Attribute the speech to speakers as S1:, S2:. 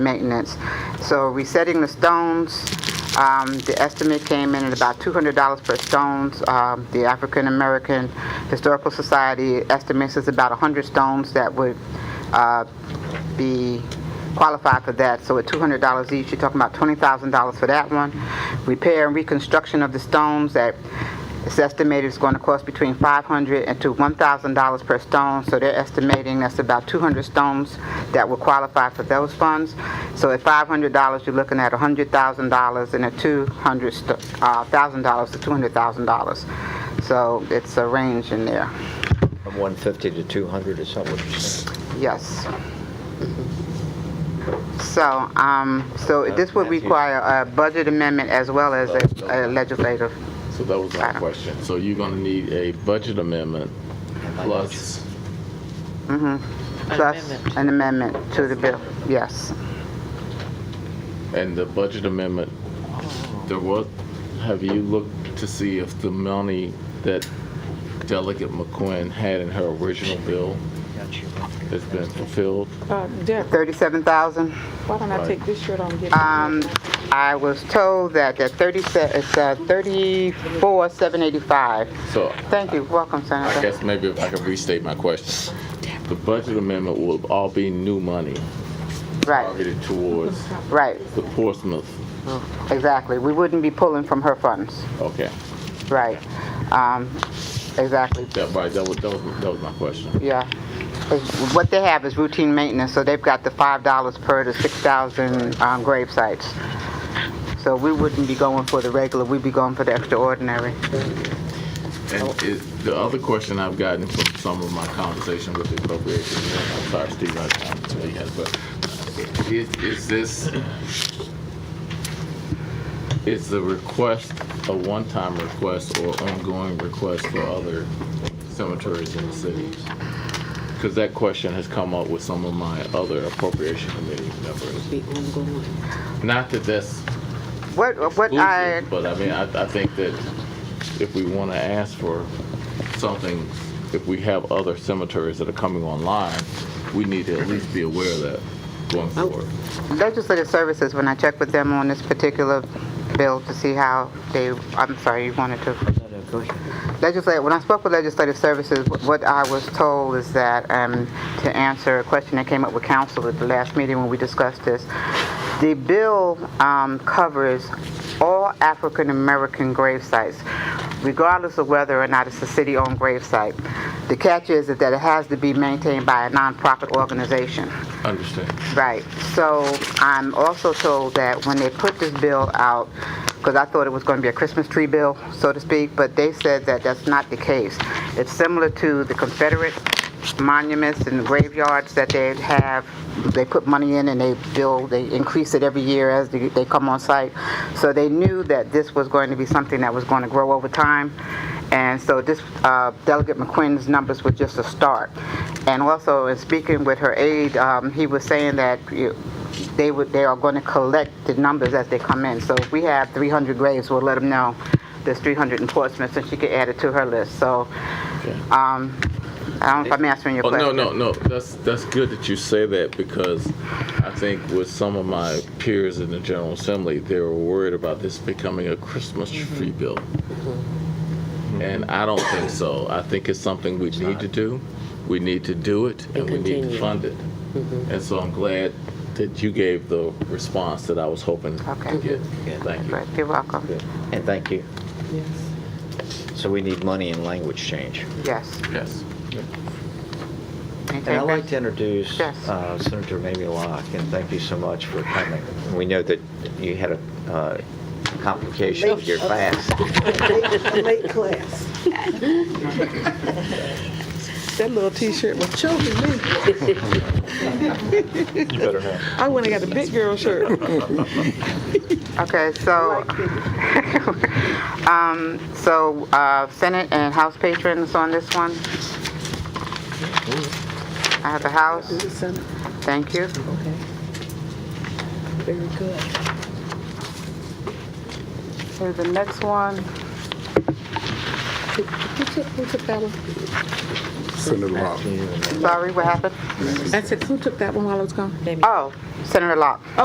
S1: maintenance. So resetting the stones, um, the estimate came in at about $200 per stones. Um, The African American Historical Society estimates it's about 100 stones that would uh, be qualified for that. So at $200 each, you're talking about $20,000 for that one. Repair and reconstruction of the stones that it's estimated it's going to cost between $500 and to $1,000 per stone, so they're estimating that's about 200 stones that will qualify for those funds. So at $500, you're looking at $100,000, and at $200,000 uh, to $200,000. So it's a range in there,
S2: From 150 to 200 or something, what you said?
S1: yes. So, um, so this would
S2: Matthew.
S1: require a budget amendment as well as a a legislative,
S3: So that was my question. So you're gonna need a budget amendment plus,
S1: plus an amendment to the bill, yes.
S3: and the budget amendment, there was, have you looked to see if the money that Delegate McQuinn had in her original bill
S2: Got you.
S3: has been fulfilled?
S4: Uh, Derek,
S1: 37000
S4: why don't I take this shirt on and get
S1: Um, I was told that the 30, se- it's uh, 34,785.
S3: So
S1: Thank you, welcome
S3: I
S1: Senator.
S3: guess maybe if I could restate my question. The budget amendment will all be new money
S1: Right,
S3: targeted towards
S1: right,
S3: the Portsmouth.
S1: exactly. We wouldn't be pulling from her funds,
S3: Okay,
S1: right. Um, Exactly,
S3: that, right, that was, that was, that was my question.
S1: yeah. It's- What they have is routine maintenance, so they've got the $5 per to 6,000 um, grave sites. So we wouldn't be going for the regular, we'd be going for the extraordinary.
S3: And is, the other question I've gotten from some of my conversation with the appropriations, I'm sorry, Steve, I can't tell you guys, but is, is this, is the request a one-time request or ongoing request for other cemeteries in the city? Because that question has come up with some of my other appropriation committee members. Not that that's
S1: What, what I,
S3: exclusive, but I mean, I, I think that if we want to ask for something, if we have other cemeteries that are coming online, we need to at least be aware of that going forward.
S1: Legislative Services, when I checked with them on this particular bill to see how they, I'm sorry, you wanted to.
S2: No, no, go ahead.
S1: Legislative, when I spoke with Legislative Services, what I was told is that, um, to answer a question that came up with council at the last meeting when we discussed this, the bill, um, covers all African-American grave sites, regardless of whether or not it's a city-owned grave site. The catch is that it has to be maintained by a nonprofit organization.
S3: Understand.
S1: Right. So I'm also told that when they put this bill out, because I thought it was going to be a Christmas tree bill, so to speak, but they said that that's not the case. It's similar to the Confederate monuments and graveyards that they have. They put money in and they build, they increase it every year as they they come on site. So they knew that this was going to be something that was going to grow over time. And so this, uh, Delegate McQuinn's numbers were just a start. And also, in speaking with her aide, um, he was saying that you- they would, they are going to collect the numbers as they come in. So if we have 300 graves, we'll let them know there's 300 in Portsmouth, and she could add it to her list. So, um, I don't know if I'm answering your
S3: Oh,
S1: question.
S3: no, no, no, that's, that's good that you say that because I think with some of my peers in the General Assembly, they were worried about this becoming a Christmas
S1: Mm-hmm.
S3: tree bill. And I don't think so. I think it's something we need to do. We need to do it and we need to fund it.
S1: Mm-hmm.
S3: And so I'm glad that you gave the response that I was hoping
S1: Okay. Mm-hmm.
S3: to get. Thank you.
S1: But You're welcome.
S2: And thank you.
S4: Yes.
S2: So we need money and language change.
S1: Yes.
S3: Yes.
S1: Anything,
S2: And I'd like
S1: Chris?
S2: to introduce
S1: Yes.
S2: uh, Senator Mamie Locke, and thank you so much for coming. We know that you had a uh, complication with your fast.
S5: late class.
S4: That little t-shirt was choking me. You better not. I went and got a big girl shirt.
S1: Okay, so, um, so, uh, Senate and House patrons on this one? I have a House, thank you.
S4: Very good.
S1: Here's the next one.
S6: Senator Locke.
S1: Sorry, what happened?
S4: I said, who took that one while I was gone?
S1: Oh, Senator Locke.